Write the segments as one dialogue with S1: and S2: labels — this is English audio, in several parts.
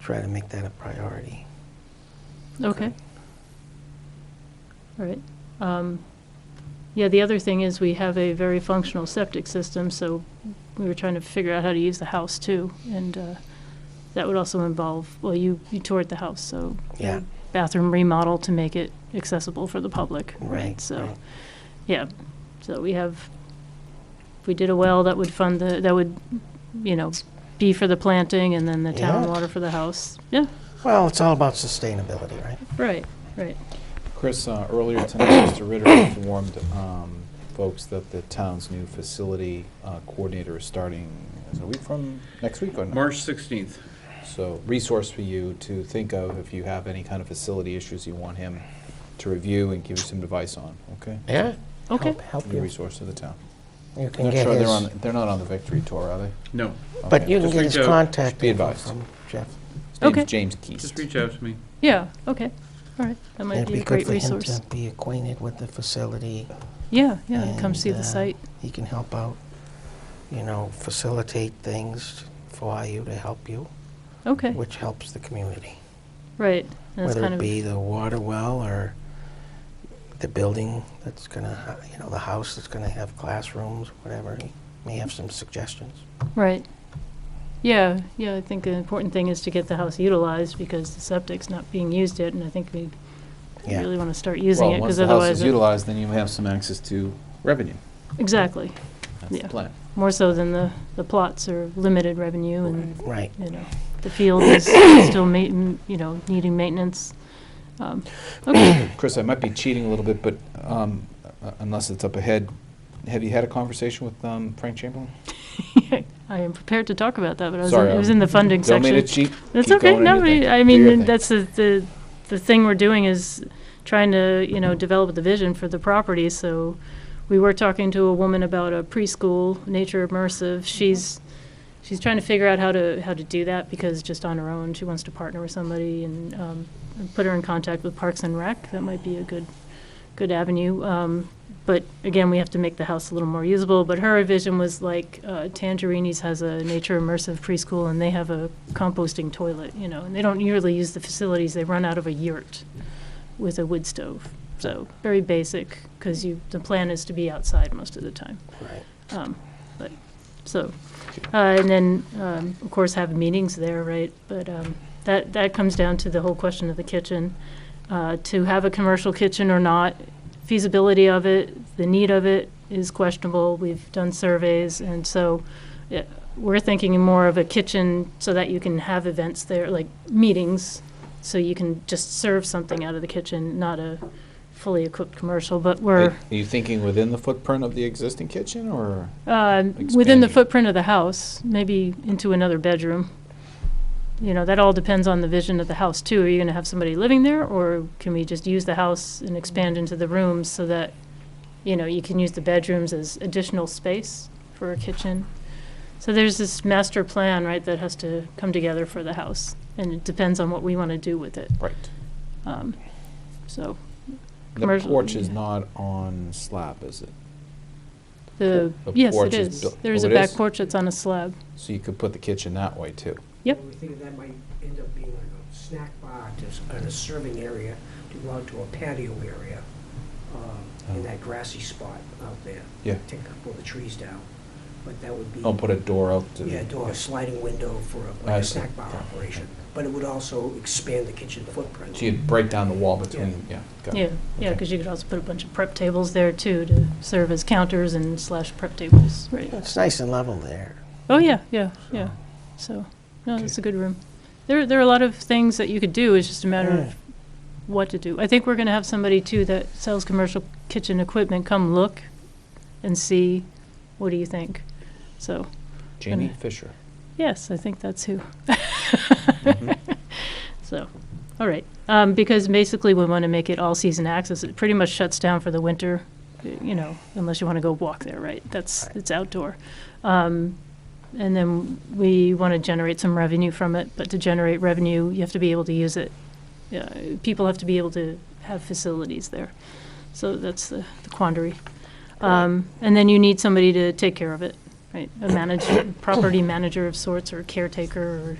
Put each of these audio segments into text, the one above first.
S1: try to make that a priority.
S2: Okay. All right. Um, Yeah, the other thing is we have a very functional septic system, so we were trying to figure out how to use the house too. And uh, that would also involve, well, you, you toured the house, so.
S1: Yeah.
S2: Bathroom remodel to make it accessible for the public.
S1: Right, right.
S2: So, yeah, so we have, if we did a well, that would fund the, that would, you know, be for the planting and then the town
S1: Yeah.
S2: water for the house. Yeah,
S1: Well, it's all about sustainability, right?
S2: right, right.
S3: Chris, uh, earlier tonight, Mr. Ritter informed um, folks that the town's new facility uh, coordinator is starting, is it a week from, next week or not?
S4: March 16th.
S3: So resource for you to think of if you have any kind of facility issues you want him to review and give you some advice on, okay?
S1: Yeah.
S2: Okay.
S1: Help- Help
S3: New
S1: you.
S3: resource to the town.
S1: You can
S3: Not
S1: get
S3: sure they're on,
S1: his,
S3: they're not on the victory tour, are they?
S4: No,
S1: but
S3: Okay.
S1: you can
S4: Just
S1: get
S4: reach
S1: his
S4: out.
S1: contact
S3: Be
S1: info
S3: advised.
S1: from Jeff.
S3: His name's
S2: Okay.
S3: James Keast.
S4: just reach out to me.
S2: Yeah, okay, all right, that might
S1: It'd
S2: be
S1: be
S2: a
S1: good
S2: great
S1: for him
S2: resource.
S1: to be acquainted with the facility.
S2: Yeah, yeah, and come see
S1: and,
S2: the
S1: uh,
S2: site.
S1: He can help out, you know, facilitate things for you to help you,
S2: Okay,
S1: which helps the community.
S2: right. and That's
S1: uh, Whether
S2: kind
S1: it
S2: of
S1: be the water well or the building that's gonna, ha- you know, the house that's gonna have classrooms, whatever. He May have some suggestions.
S2: Right. Yeah, yeah, I think the important thing is to get the house utilized because the septic's not being used yet, and I think we
S1: Yeah.
S2: really want to start using it,
S3: Well,
S2: because
S3: once the house is
S2: otherwise. it-
S3: utilized, then you have some access to revenue.
S2: Exactly,
S3: That's
S2: Yeah.
S3: the plan.
S2: more so than the, the plots are limited revenue, and,
S1: Right.
S2: you know, the field is still ma, m- you know, needing maintenance. Um, Okay,
S3: Chris, I might be cheating a little bit, but um, uh, unless it's up ahead, have you had a conversation with um, Frank Chamberlain?
S2: I am prepared to talk about that, but I was, in-
S3: Sorry,
S2: it was
S3: I'm-
S2: in the funding
S3: Don't
S2: section.
S3: mean to cheat.
S2: That's
S3: Keep
S2: okay.
S3: going in
S2: No,
S3: your thing.
S2: we- I
S3: Do your
S2: mean,
S3: thing.
S2: that's the, the, the thing we're doing is trying to, you know, develop the vision for the property. So we were talking to a woman about a preschool, Nature
S3: Mm-hmm.
S2: Immersive. She's, she's trying to figure out how to, how to do that because just on her own, she wants to partner with somebody and, um, and put her in contact with Parks and Rec. That might be a good, good avenue. Um, but again, we have to make the house a little more usable. But her vision was like uh, Tangerini's has a nature immersive preschool, and they have a composting toilet, you know, and they don't usually use the facilities. They run out of a yurt with a wood stove. So very basic because you the plan is to be outside most of the time.
S1: Right.
S2: Um, but so, uh, and then um, of course have meetings there, right? But um, that that comes down to the whole question of the kitchen, uh, to have a commercial kitchen or not, feasibility of it, the need of it is questionable. We've done surveys, and so yeah, we're thinking more of a kitchen so that you can have events there, like meetings, so you can just serve something out of the kitchen, not a fully equipped commercial. But
S3: Are
S2: we're
S3: are you thinking within the footprint of the existing kitchen, or?
S2: um, Within the
S3: Expanding.
S2: footprint of the house, maybe into another bedroom. You know, that all depends on the vision of the house, too. Are you going to have somebody living there, or can we just use the house and expand into the rooms so that, you know, you can use the bedrooms as additional space for a kitchen? So there's this master plan, right, that has to come together for the house, and it depends on what we want to do with it.
S3: Right.
S2: Um, So
S3: The
S2: Commercial,
S3: porch is
S2: yeah.
S3: not on slab, is it?
S2: the,
S3: The
S2: yes, it
S3: porch is
S2: is.
S3: built-
S2: There's
S3: oh,
S2: a
S3: it
S2: back
S3: is?
S2: porch that's on a slab.
S3: So you could put the kitchen that way, too.
S2: Yep.
S5: We think that might end up being like a snack bar, just on a serving area, to go out to a patio area, um,
S3: Oh.
S5: in that grassy spot out there.
S3: Yeah.
S5: Take a couple of the trees down, but that would be.
S3: Don't put a door out to the.
S5: Yeah, door, a sliding window for a-
S3: I
S5: like a
S3: see.
S5: snack bar operation, but it would also expand the kitchen footprint.
S3: So you'd break down the wall between, yeah. got it.
S2: Yeah, yeah,
S3: Okay.
S2: because you could also put a bunch of prep tables there too to serve as counters and slash prep tables, right?
S1: It's nice and level there.
S2: Oh, yeah, yeah, yeah. So, no, it's a good room. There, there are a lot of things that you could do, it's just a matter
S1: Yeah.
S2: of what to do. I think we're going to have somebody too that sells commercial kitchen equipment come look and see, what do you think? So,
S3: Jamie Fisher.
S2: yes, I think that's who.
S3: Mhm.
S2: So, all right, um, because basically we want to make it all season access. It pretty much shuts down for the winter, y- you know, unless you want to go walk there, right? That's,
S1: Right.
S2: it's outdoor. Um, and then we want to generate some revenue from it, but to generate revenue, you have to be able to use it. Yeah, people have to be able to have facilities there. So that's the the quandary. Um, and then you need somebody to take care of it, right? A manager, property manager of sorts or caretaker or,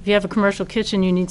S2: if you have a commercial kitchen, you need